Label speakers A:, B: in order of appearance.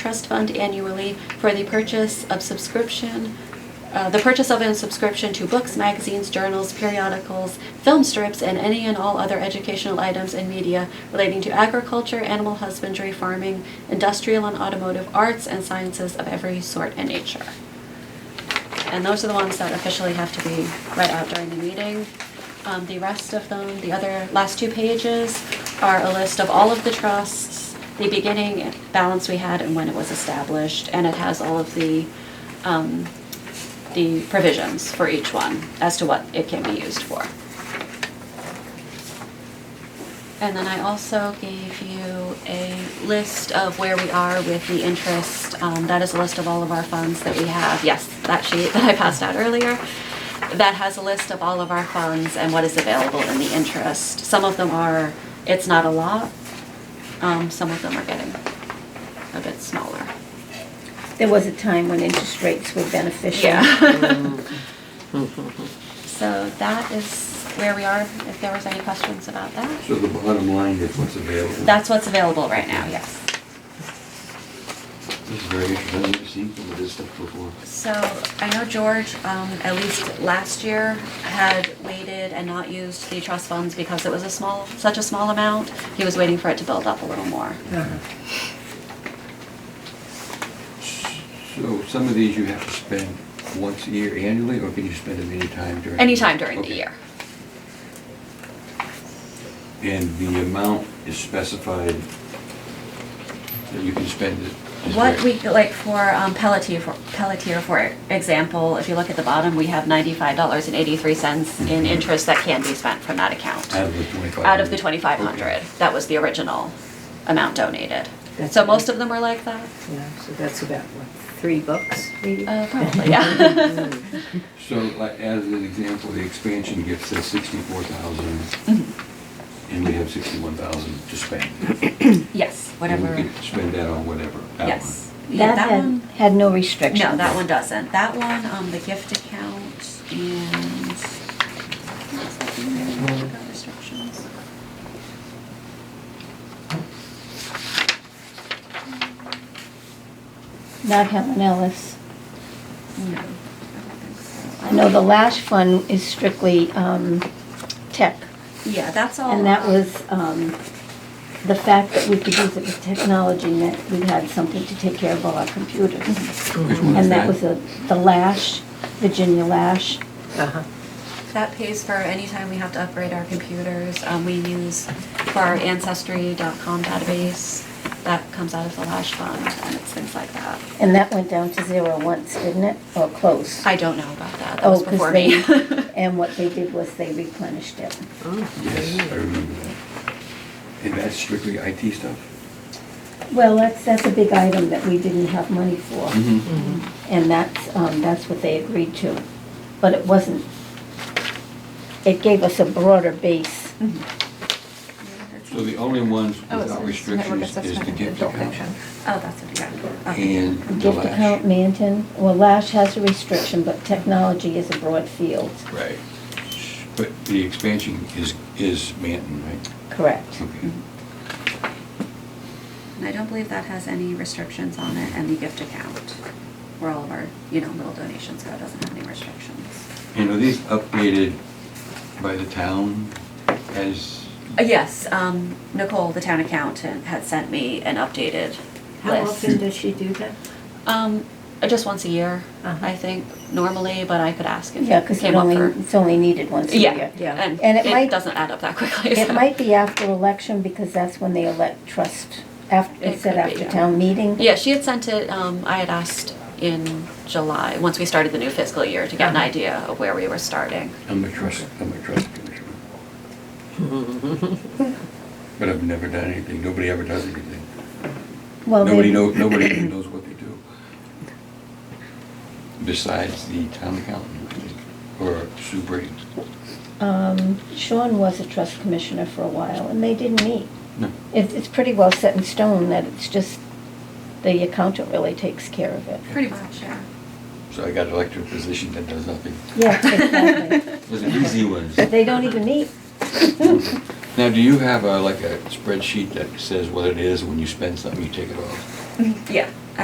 A: trust fund annually for the purchase of subscription, uh, the purchase of and subscription to books, magazines, journals, periodicals, film strips, and any and all other educational items and media relating to agriculture, animal husbandry, farming, industrial and automotive arts, and sciences of every sort and nature. And those are the ones that officially have to be read out during the meeting. Um, the rest of them, the other last two pages, are a list of all of the trusts, the beginning balance we had and when it was established, and it has all of the, um, the provisions for each one as to what it can be used for. And then I also gave you a list of where we are with the interest. Um, that is a list of all of our funds that we have. Yes, that sheet that I passed out earlier. That has a list of all of our funds and what is available in the interest. Some of them are, it's not a lot. Um, some of them are getting a bit smaller.
B: There was a time when interest rates were beneficial.
A: Yeah. So that is where we are, if there was any questions about that.
C: So the bottom line is what's available.
A: That's what's available right now, yes.
C: This is very interesting. I've never seen some of this stuff before.
A: So I know George, um, at least last year, had waited and not used the trust funds because it was a small, such a small amount. He was waiting for it to build up a little more.
C: So some of these you have to spend once a year annually, or can you spend them anytime during?
A: Anytime during the
C: Okay.
A: year.
C: And the amount is specified that you can spend it? is
A: What
C: there-
A: we, like for um, Pelletier, for Pelletier, for example, if you look at the bottom, we have ninety-five dollars and eighty-three cents in interest that can be spent from that account.
C: Out of the twenty-five?
A: Out of the twenty-five hundred, that was the original amount donated.
D: That's
A: So
D: right.
A: most of them were like that,
D: Yeah, so that's about, what, three books, maybe?
A: uh, probably, yeah.
C: So like, as an example, the expansion gift says sixty-four thousand,
A: Mm-hmm.
C: and we have sixty-one thousand to spend.
A: Yes,
C: And
A: whatever.
C: we could spend that on whatever. that
A: Yes. Yeah,
B: That had,
A: one.
B: had no restriction.
A: No, that one doesn't. That one, um, the gift account and. Restrictions.
B: Not Helen Ellis.
A: No. I don't think so.
B: I know the last fund is strictly, um, tech.
A: Yeah, that's all.
B: And that was, um, the fact that we could use it with technology meant we had something to take care of all our computers.
A: Mm-hmm.
C: one. Which one is
B: And that was the, the Lash, Virginia Lash.
D: Uh-huh.
A: That pays for any time we have to upgrade our computers. Um, we use for our ancestry.com database. That comes out of the Lash Fund and it's things like that.
B: And that went down to zero once, didn't it? Or close?
A: I don't know about that. That
B: Oh,
A: was
B: 'cause
A: before me.
B: they- And what they did was they replenished it.
C: Yes, I remember that. And that's strictly IT stuff?
B: Well, that's, that's a big item that we didn't have money for.
C: Mm-hmm.
B: And that's, um, that's what they agreed to. But it wasn't, it gave us a broader base.
C: So the only ones
A: Oh, it's-
C: without
A: it's
C: restrictions is the gift account
A: Oh, that's what you got. Okay.
C: and the
B: Gift account,
C: lash.
B: Manton, well, Lash has a restriction, but technology is a broad field.
C: Right. But the expansion is, is Manton, right?
B: Correct.
C: Okay.
A: And I don't believe that has any restrictions on it, and the gift account, where all of our, you know, little donations go, doesn't have any restrictions.
C: And are these updated by the town as?
A: Uh, Yes, um, Nicole, the town accountant, had sent me an updated
D: How often
A: list.
D: does she do that?
A: Um, uh, just once a year,
D: Uh-huh.
A: I think, normally, but I could ask if
B: Yeah, because
A: it
B: it
A: came up
B: only,
A: for.
B: it's only needed once a
A: Yeah,
B: year.
D: Yeah.
A: and
B: And it
A: it
B: might-
A: doesn't add up that quickly.
B: It
A: so-
B: might be after election, because that's when they elect trust, after,
A: It
B: it said
A: could be,
B: after
A: yeah.
B: town meeting.
A: Yeah, she had sent it, um, I had asked in July, once we started the new fiscal year, to get an
D: Uh-huh.
A: idea of where we were starting.
C: I'm a trust, I'm a trust commissioner. But I've never done anything. Nobody ever does anything.
B: Well, they-
C: Nobody knows, nobody even knows what they do. Besides the town accountant or Sue Brady.
B: Um, Sean was a trust commissioner for a while, and they didn't meet.
C: No.
B: It's, it's pretty well set in stone that it's just, the accountant really takes care of it.
A: Pretty much, yeah.
C: So I got an elected position that does nothing.
B: Yeah, exactly.
C: Those are easy ones.
B: They don't even meet.
C: Now, do you have a, like a spreadsheet that says what it is when you spend something, you take it off?
A: Yeah.